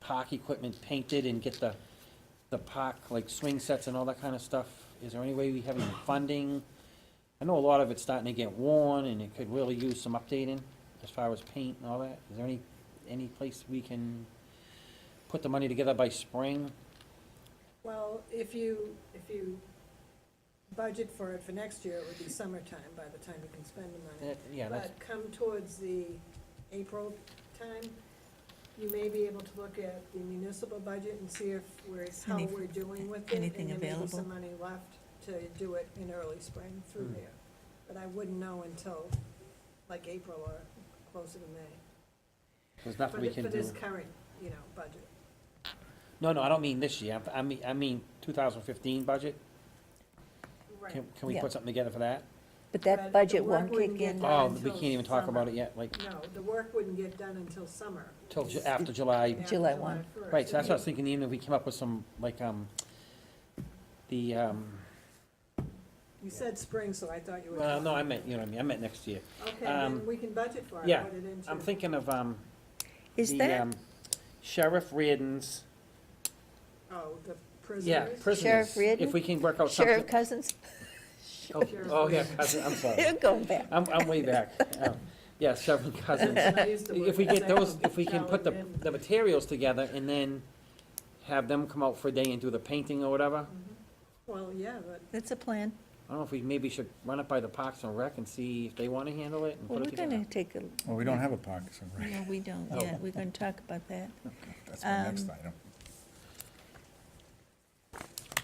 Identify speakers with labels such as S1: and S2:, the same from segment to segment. S1: park equipment painted and get the, the park, like swing sets and all that kind of stuff? Is there any way we have any funding? I know a lot of it's starting to get worn and it could really use some updating as far as paint and all that. Is there any, any place we can put the money together by spring?
S2: Well, if you, if you budget for it for next year, it would be summertime by the time you can spend the
S1: Uh,
S2: money.
S1: Yeah, that's,
S2: But come towards the April time, you may be able to look at the municipal budget and see if we're, how
S3: Any-
S2: we're doing with it.
S3: anything
S2: And there may be
S3: available?
S2: some money left to do it in early spring through
S1: Hmm.
S2: there. But I wouldn't know until like April or closer to May.
S1: there's nothing we
S2: For the-
S1: can
S2: For this
S1: do.
S2: current, you know, budget.
S1: No, no, I don't mean this year. I mean, I mean two thousand fifteen budget.
S2: Right.
S1: Can, can we
S3: Yeah.
S1: put something together for that?
S3: But
S2: But the
S3: that budget
S2: work
S3: won't
S2: wouldn't
S3: kick
S2: get
S3: in.
S2: done.
S1: Oh, we
S2: until
S1: can't even talk about
S2: summer.
S1: it yet, like,
S2: No, the work wouldn't get done until summer.
S1: till ju- after July.
S2: After
S3: July 1.
S2: 1st.
S1: Right, so that's what I was thinking, even if we came up with some, like, um, the, um,
S2: You said spring, so I thought you were.
S1: well, no, I meant, you know what I mean, I meant next year.
S2: Okay, then
S1: um,
S2: we can budget for it,
S1: yeah,
S2: put it into.
S1: I'm thinking of, um,
S3: Is
S1: the,
S3: that
S1: um, Sheriff Reardon's,
S2: Oh, the
S1: yeah,
S2: prisoners.
S1: prisoners.
S3: Reardon?
S1: If we can work out
S3: Sheriff
S1: something.
S3: Cousins?
S1: Oh,
S2: Sheriff
S1: Oh, yeah,
S2: Reardon.
S1: Cousins, I'm sorry.
S3: They're going back.
S1: I'm, I'm way back. Um, Yeah, Sheriff Cousins. If we get those, if we can put the, the materials together and then have them come out for a day and do the painting or whatever.
S2: Well, yeah, but
S3: That's a plan.
S1: I don't know if we maybe should run it by the Parks and Rec and see if they want to handle it and
S3: Well,
S1: put it
S3: we're
S1: together.
S3: gonna take a,
S4: Well, we don't have a pocket, so right,
S3: no, we don't
S1: Oh.
S3: yet. We're gonna talk about that.
S4: that's my next
S3: Um,
S4: item.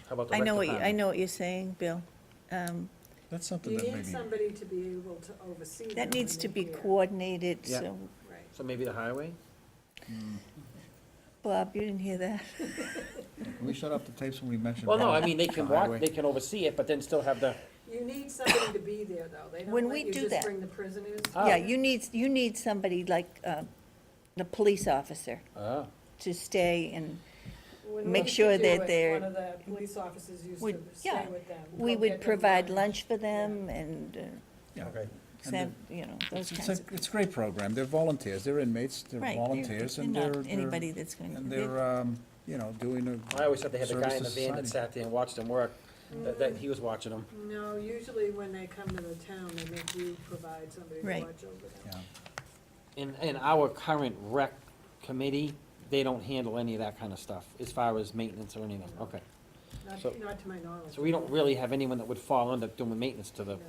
S1: How about the
S3: I
S1: rec
S3: know what, you- I
S1: department?
S3: know what you're saying, Bill. Um,
S4: That's something
S2: you
S4: that
S2: need
S4: maybe,
S2: somebody to be able to oversee. them
S3: That needs
S2: when
S3: to
S2: they're
S3: be
S2: here.
S3: coordinated,
S1: Yeah.
S3: so,
S2: Right.
S1: So maybe the highway?
S3: Bob, you didn't hear that?
S4: we shut off the tapes when we mentioned.
S1: Well, no, I
S4: Brown-
S1: mean, they can
S4: the highway.
S1: walk, they can oversee it, but then still have the,
S2: You need somebody to be there, though. They
S3: When
S2: don't
S3: we
S2: let you
S3: do
S2: just
S3: that-
S2: bring the prisoners.
S1: Oh.
S3: Yeah, you need, you need somebody like, uh, the police officer
S1: oh,
S3: to stay and
S2: When we
S3: Make
S2: used to
S3: sure
S2: do
S3: that
S2: it,
S3: they're-
S2: One of the police officers used to
S3: Would-
S2: stay
S3: yeah,
S2: with them.
S3: we
S2: go get
S3: would
S2: them
S3: provide
S2: lunch.
S3: lunch for them and, uh,
S4: Yeah.
S1: okay.
S4: And
S3: send, you know, those
S4: It's
S3: kinds
S4: it's
S3: of.
S4: a, it's a great program, they're volunteers, they're inmates, they're
S3: Right,
S4: volunteers, and
S3: not
S4: they're, they're-
S3: Anybody that's going to,
S4: and
S3: they-
S4: they're, um, you know, doing a.
S1: I always thought they had the guy in the
S4: service to
S1: van that
S4: society.
S1: sat there and watched them work, that, that he was watching them.
S2: No, usually when they come to the town, they make you provide somebody to watch
S3: Right.
S2: over them.
S4: Yeah.
S1: In, in our current rec committee, they don't handle any of that kind of stuff, as far as maintenance or anything, okay. So-
S2: Not, not to my knowledge.
S1: So we don't really have anyone that would fall under doing maintenance to the,
S2: No.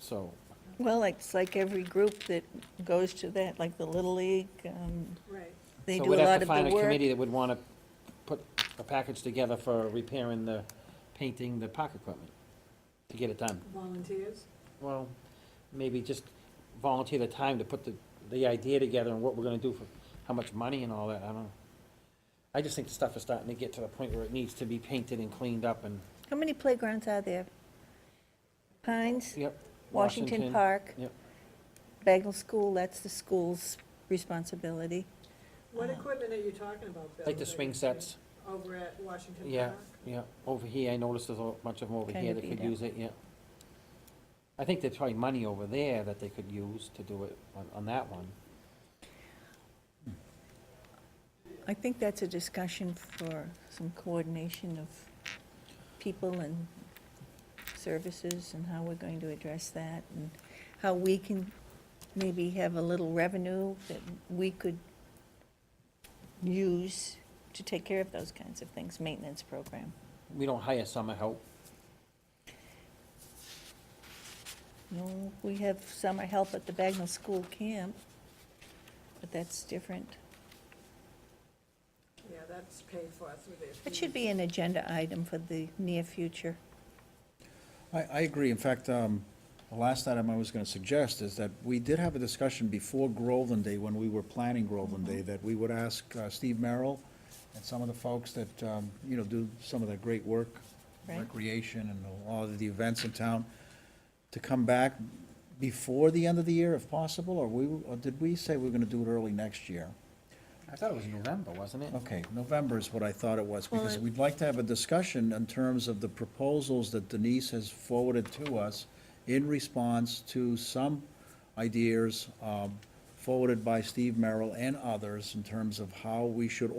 S1: so,
S3: well, it's like every group that goes to that, like the Little League, um,
S2: Right.
S3: they
S1: So
S3: do a
S1: we'd have
S3: lot
S1: to
S3: of the
S1: find a
S3: work.
S1: committee that would want to put a package together for repairing the, painting the park equipment, to get it done.
S2: Volunteers?
S1: Well, maybe just volunteer the time to put the, the idea together and what we're gonna do for, how much money and all that, I don't know. I just think the stuff is starting to get to the point where it needs to be painted and cleaned up and,
S3: How many playgrounds are there? Pines,
S1: yep.
S3: Washington Park,
S1: Yep,
S3: Bagnell School, that's the school's responsibility.
S2: What
S3: Uh,
S2: equipment are you talking about,
S1: Uh-huh.
S2: Bill?
S1: like the
S2: that
S1: swing
S2: you-
S1: sets,
S2: Over at Washington Park?
S1: yeah, yeah, over here, I noticed there's a bunch of them over
S3: Kinda
S1: here that could
S3: beat up.
S1: use it, yeah. I think there's probably money over there that they could use to do it on, on that one.
S3: I think that's a discussion for some coordination of people and services and how we're going to address that and how we can maybe have a little revenue that we could use to take care of those kinds of things, maintenance program.
S1: We don't hire summer help,
S3: No, we have summer help at the Bagnell School Camp, but that's different.
S2: Yeah, that's paid for through their.
S3: That should
S2: fees.
S3: be an agenda item for the near future.
S4: I, I agree. In fact, um, the last item I was gonna suggest is that we did have a discussion before Groveland Day, when we were planning Groveland Day, that we would ask uh, Steve Merrill and some of the folks that, um, you know, do some of the great work,
S3: Right.
S4: recreation and a lot of the events in town, to come back before the end of the year if possible, or we, or did we say we were gonna do it early next year?
S1: I thought it was November, wasn't it?
S4: Okay, November is what I thought it was,
S3: Well,
S4: because
S3: it-
S4: we'd like to have a discussion in terms of the proposals that Denise has forwarded to us in response to some ideas um, forwarded by Steve Merrill and others in terms of how we should